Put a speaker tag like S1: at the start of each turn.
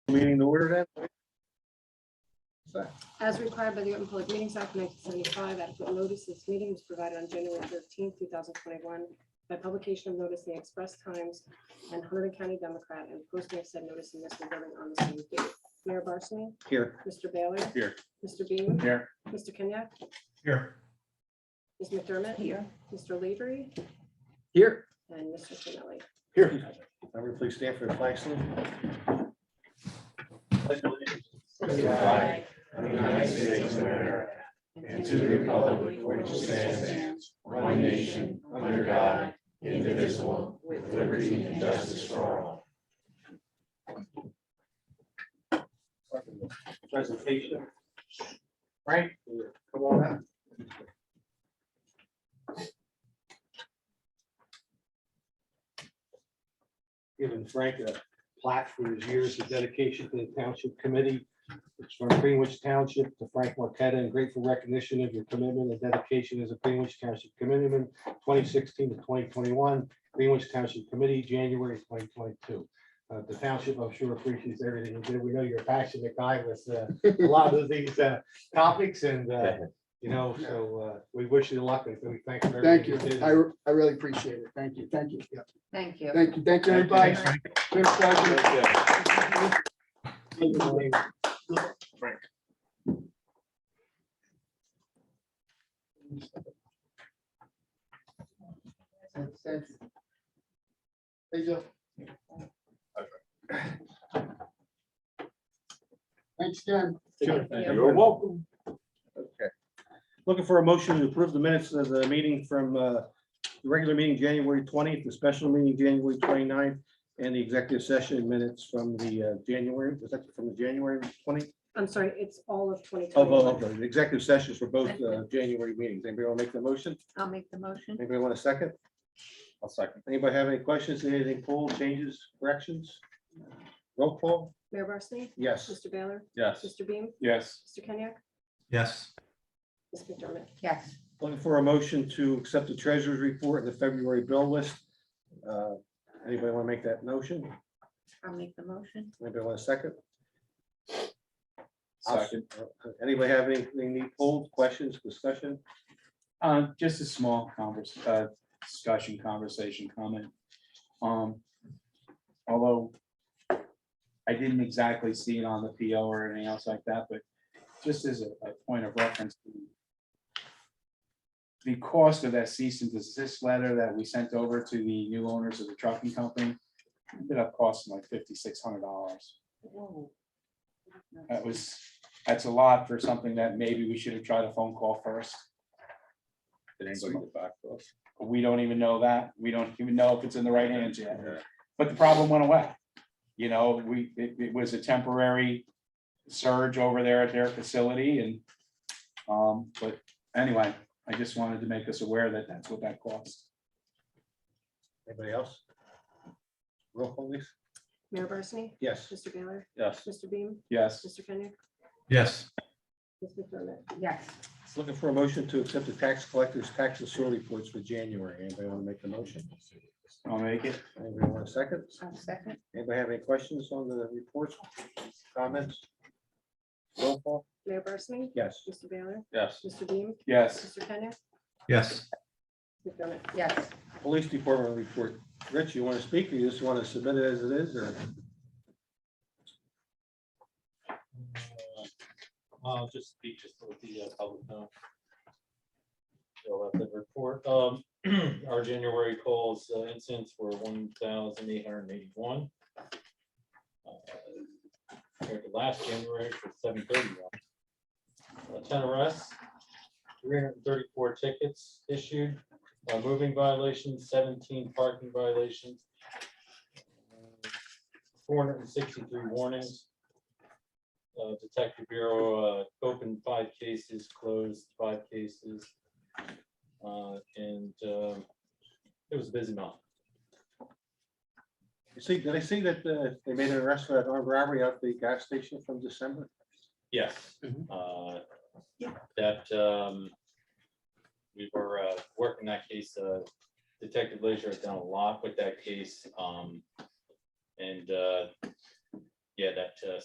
S1: Second.
S2: As required by the Open Public Meetings Act nineteen seventy-five, adequate notice of this meeting was provided on January thirteenth, two thousand twenty-one by publication of notice in the Express Times and Hunterdon County Democrat and posting of said notice in this building on the same date. Mayor Barsney?
S1: Here.
S2: Mr. Baylor?
S1: Here.
S2: Mr. Beam?
S1: Here.
S2: Mr. Kenyak?
S1: Here.
S2: Ms. McDermott? Here. Mr. Labor?
S1: Here.
S2: And Mr. Finelli.
S1: Here. Everyone please stand for the flag salute.
S3: and to the republic for which it stands, one nation, under God, indivisible, with liberty and justice for all.
S1: Presentation. Frank, come on up.
S4: giving Frank a plaque for his years of dedication to the Township Committee. It's from Greenwich Township to Frank Marqueta and grateful recognition of your commitment and dedication as a Greenwich Township Committeeman, twenty sixteen to twenty twenty-one, Greenwich Township Committee, January twenty twenty-two. Uh, The township, I'm sure appreciates everything you did. We know you're a passionate guy with uh, a lot of these uh, topics and, uh, you know, so uh, we wish you luck and we thank you. for
S5: Thank
S4: everything
S5: you.
S4: did.
S5: I, I really appreciate it. Thank you. Thank you. Yeah.
S3: Thank you.
S5: Thank you. Thank you, everybody. Good pleasure. Thank you. Hey, Joe. Thanks again.
S4: You're welcome.
S1: Okay. Looking for a motion to approve the minutes of the meeting from uh, the regular meeting, January twentieth, the special meeting, January 29th, and the executive session minutes from the uh, January, was that from the January twentieth?
S2: I'm sorry, it's all of twenty
S1: Oh,
S2: twenty-one.
S1: oh, okay, the executive sessions for both uh, January meetings. Anybody want to make the motion?
S3: I'll make the motion.
S1: Anybody want a second? I'll second. Anybody have any questions, anything pulled, changes, corrections? Roll call?
S2: Mayor Barsney?
S1: Yes.
S2: Mr. Baylor?
S1: Yes.
S2: Mr. Beam?
S1: Yes.
S2: Mr. Kenyak?
S6: yes,
S2: Ms. McDermott?
S3: Yes,
S1: Looking for a motion to accept the treasurer's report and the February bill list. Uh, Anybody want to make that motion?
S3: I'll make the motion.
S1: Anybody want a second? Second. Anybody have anything need pulled, questions, discussion?
S7: Um, just a small convers, uh, discussion, conversation, comment. Um, although I didn't exactly see it on the PO or anything else like that, but just as a, a point of reference. The cost of that cease and desist letter that we sent over to the new owners of the trucking company ended up costing like fifty-six hundred dollars. That was, that's a lot for something that maybe we should have tried a phone call first. We don't even know that. We don't even know if it's in the right hands
S1: Uh,
S7: yet. But the problem went away. You know, we, it, it was a temporary surge over there at their facility and, um, but anyway, I just wanted to make us aware that that's what that costs.
S1: Anybody else? Roll call, please.
S2: Mayor Barsney?
S1: Yes.
S2: Mr. Baylor?
S1: Yes.
S2: Mr. Beam?
S7: Yes,
S2: Mr. Kenyak?
S6: yes,
S2: Ms. McDermott?
S3: Yes,
S1: Looking for a motion to accept the tax collector's tax and sewer reports for January. Anybody want to make the motion?
S7: I'll make it.
S1: Anybody want a second?
S3: I'll second.
S1: Anybody have any questions on the reports, comments? Roll call?
S2: Mayor Barsney?
S1: Yes.
S2: Mr. Baylor?
S1: Yes.
S2: Mr. Beam?
S7: Yes.
S2: Mr. Kenyak?
S6: yes.
S2: Ms. McDermott?
S3: Yes,
S1: Police Department report. Rich, you want to speak or you just want to submit it as it is or?
S8: Uh, I'll just speak just with the uh, public now. Fill out the report. Um, Our January calls uh, incidents were one thousand eight hundred and eighty-one. Uh, Compared to last January for seven thirty-one. Uh, Ten arrests, three hundred and thirty-four tickets issued, uh, moving violations, seventeen parking violations, Uh, four hundred and sixty-three warnings, uh, Detective Bureau, uh, opened five cases, closed five cases. Uh, and, um, it was a busy month.
S1: You see, did I see that uh, they made an arrest for that armed robbery out the gas station from December?
S8: Yes. Uh, that, um, we were, uh, working that case, uh, Detective Leisure has done a lot with that case, um, and, uh, yeah, that uh,